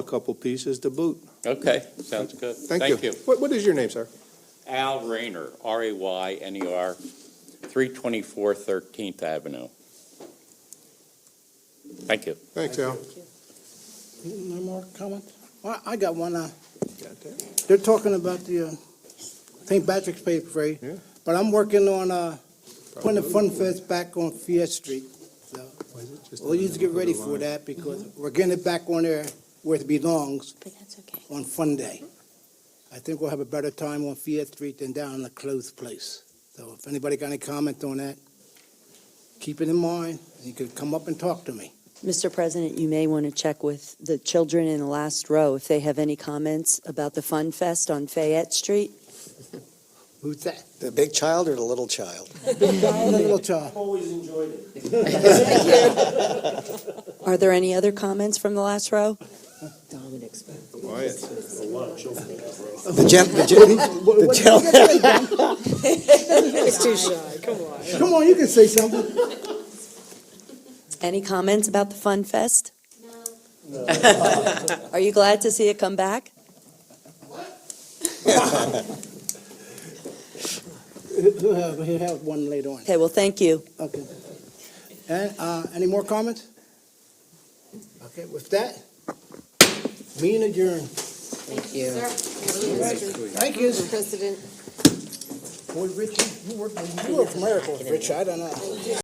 a couple pieces to boot. Okay, sounds good. Thank you. What, what is your name, sir? Al Rayner, R-A-Y-N-E-R, 324 13th Avenue. Thank you. Thanks, Al. No more comments? Well, I got one. uh, They're talking about the uh, St. Patrick's Day Parade, Yeah. but I'm working on uh, putting the Fun Fest back on Fiesta Street. So We'll need to get ready for that because we're getting it back on there where it belongs But that's okay. on Fun Day. I think we'll have a better time on Fiesta Street than down in the closed place. So if anybody got any comment on that, keep it in mind. You could come up and talk to me. Mr. President, you may want to check with the children in the last row if they have any comments about the Fun Fest on Fayette Street. Who's that? The big child or the little child? The little child. Are there any other comments from the last row? The gent, the gent, the gent. Come on, you can say something. Any comments about the Fun Fest? No. Are you glad to see it come back? He'll have, he'll have one later on. Okay, well, thank you. Okay. And, uh, any more comments? Okay, with that, meeting adjourned. Thank you. Thank you. Mr. President. Boy, Richie, you work, you work miracles, Richie, I don't know.